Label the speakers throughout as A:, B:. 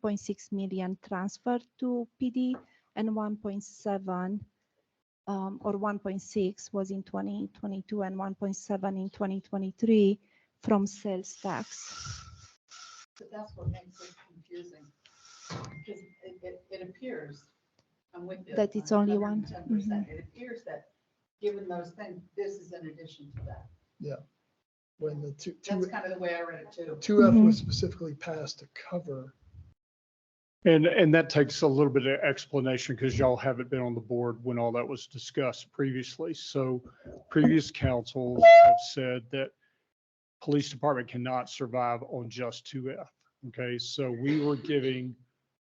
A: 2.6 million transferred to PD and 1.7 um, or 1.6 was in 2022 and 1.7 in 2023 from sales tax.
B: So that's what makes it confusing. Because it, it, it appears, I'm with you.
A: That it's only one. Mm-hmm.
B: Ten percent. It appears that, given those things, this is in addition to that.
C: when the two,
B: That's
C: two,
B: kind of the way I read it too.
C: two F
A: Mhm.
C: was specifically passed to cover.
D: And, and that takes a little bit of explanation because y'all haven't been on the board when all that was discussed previously. So previous councils have said that police department cannot survive on just two F. Okay, so we were giving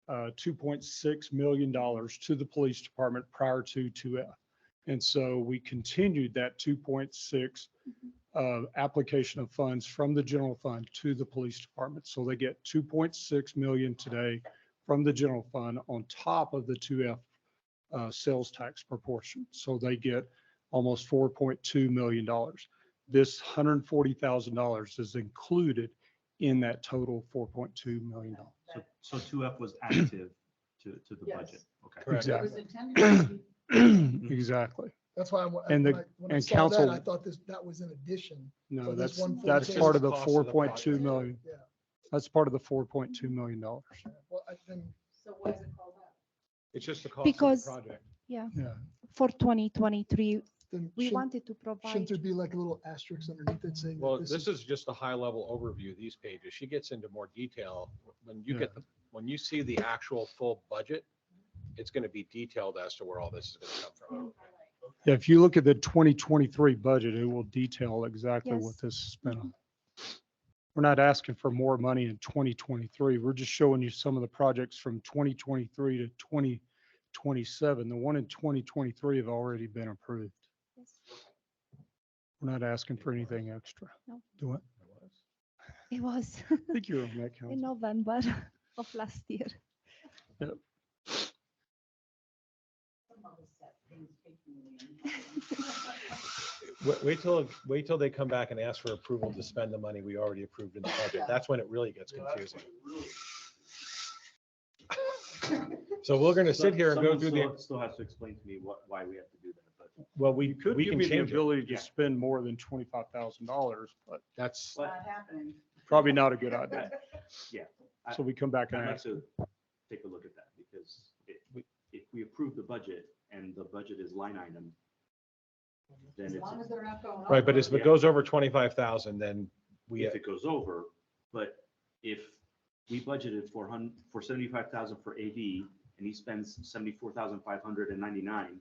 D: uh, two point six million dollars to the police department prior to two F. And so we continued that two point six uh, application of funds from the general fund to the police department. So they get two point six million today from the general fund on top of the two F uh, sales tax proportion. So they get almost four point two million dollars. This hundred and forty thousand dollars is included in that total four point two million dollars.
B: That-
E: So two F was additive to, to the budget.
B: Yes.
E: Okay.
D: Correct.
B: It was intended to be
D: Exactly.
C: That's why I, wa-
D: And
C: when
D: the-
C: I, when I
D: and
C: saw that,
D: council-
C: I thought this, that was in addition. So
D: No,
C: this
D: that's,
C: one
D: that's
C: forty-
D: part of the
F: Just the
D: four
F: cost of the
D: point two
F: project.
D: million.
C: Yeah,
D: That's part of the four point two million dollars.
C: well, I think
B: So why is it called out?
F: It's just the cost of
A: Because-
F: the project.
D: Yeah.
A: For 2023,
C: then
A: we
C: shouldn't,
A: wanted to
C: shouldn't
A: provide
C: there be like a little asterisk underneath it saying? that
F: Well, this is just a high-level overview, these pages. She gets into more detail. When you get, the when you see the actual full budget, it's going to be detailed as to where all this is going to come from.
D: Yeah, if you look at the twenty twenty-three budget, it will detail exactly what
A: Yes.
D: this is spent on. We're not asking for more money in twenty twenty-three. We're just showing you some of the projects from twenty twenty-three to twenty twenty-seven. The one in twenty twenty-three have already been approved. We're not asking for anything extra.
A: No.
D: Do it.
A: it was
D: I think you're on that
A: in
D: council.
A: November of last year.
B: Some of us set things taking
F: Wait, wait till, wait till they come back and ask for approval to spend the money we already approved in the budget. That's when it really gets confusing. So we're going to sit here and go
E: Someone
F: through the,
E: still- Still has to explain to me what, why we have to do that, but
F: well, we,
D: You could
F: we
D: give
F: can
D: me the
F: change it.
D: ability
E: Yeah.
D: to spend more than twenty-five thousand dollars, but
F: That's,
B: It's not happening.
D: probably not a good idea.
E: Yeah, I-
D: So we come back and
E: I'd like
D: ask.
E: to take a look at that because if we, if we approve the budget and the budget is line item, then
B: As
E: it's,
B: long as they're not going.
F: right, but
B: over.
F: if it goes over 25,000, then we,
E: if it goes over, but if we budgeted for hun, for seventy-five thousand for AV and he spends seventy-four thousand five hundred and ninety-nine,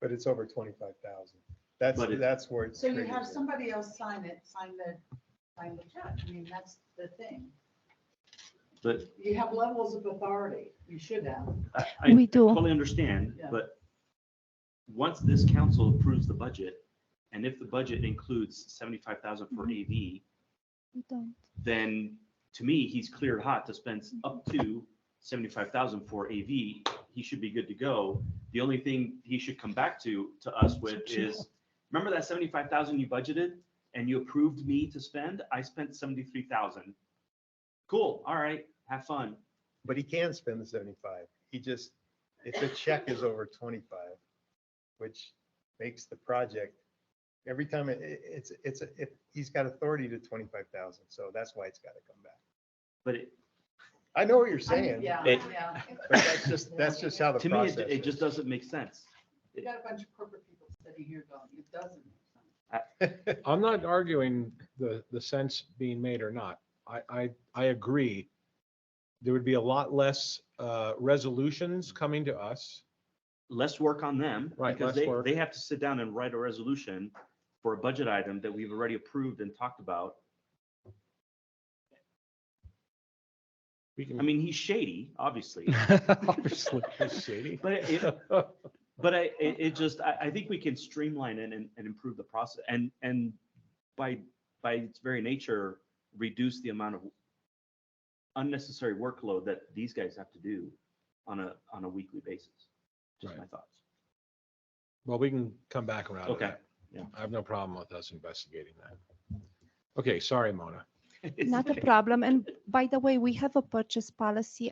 G: But it's over twenty-five thousand. That's,
E: But it-
G: that's where it's.
B: So you have
G: triggers it.
B: somebody else sign it, sign the, sign the check. I mean, that's the thing.
E: but
B: You have levels of authority. You should have.
E: I, I
A: We do.
E: totally understand,
B: Yeah.
E: but once this council approves the budget, and if the budget includes seventy-five thousand for AV,
A: We don't.
E: then to me, he's cleared hot to spend up to seventy-five thousand for AV. He should be good to go. The only thing he should come back to, to us with is, remember that seventy-five thousand you budgeted and you approved me to spend? I spent seventy-three thousand. Cool, all right, have fun.
G: But he can spend the seventy-five. He just, if the check is over twenty-five, which makes the project, every time it, it- it's, it's, a- it, he's got authority to twenty-five thousand, so that's why it's gotta come back.
E: But it,
G: I know what you're
B: I-
G: saying,
B: Yeah,
E: It-
B: yeah.
G: but that's just, that's just how the
E: to me,
G: process
E: it, it just doesn't make sense.
B: You got a bunch of corporate people sitting here going, it doesn't. make sense."
F: I'm not arguing the, the sense being made or not. I, I, I agree. There would be a lot less uh, resolutions coming to us.
E: Let's work on them.
F: Right,
E: Because
F: less
E: they,
F: work.
E: they have to sit down and write a resolution for a budget item that we've already approved and talked about.
F: We
E: I mean, he's shady, obviously.
D: Obviously.
F: That's shady.
E: But it, it- but I, it, it just, I, I think we can streamline it and, and improve the process and, and by, by its very nature, reduce the amount of unnecessary workload that these guys have to do on a, on a weekly basis. Just my thoughts.
F: Well, we can come back around to
E: Okay,
F: that.
E: yeah.
F: I have no problem with us investigating that. Okay, sorry, Mona.
E: It's
A: Not a
E: like-
A: problem. And by the way, we have a purchase policy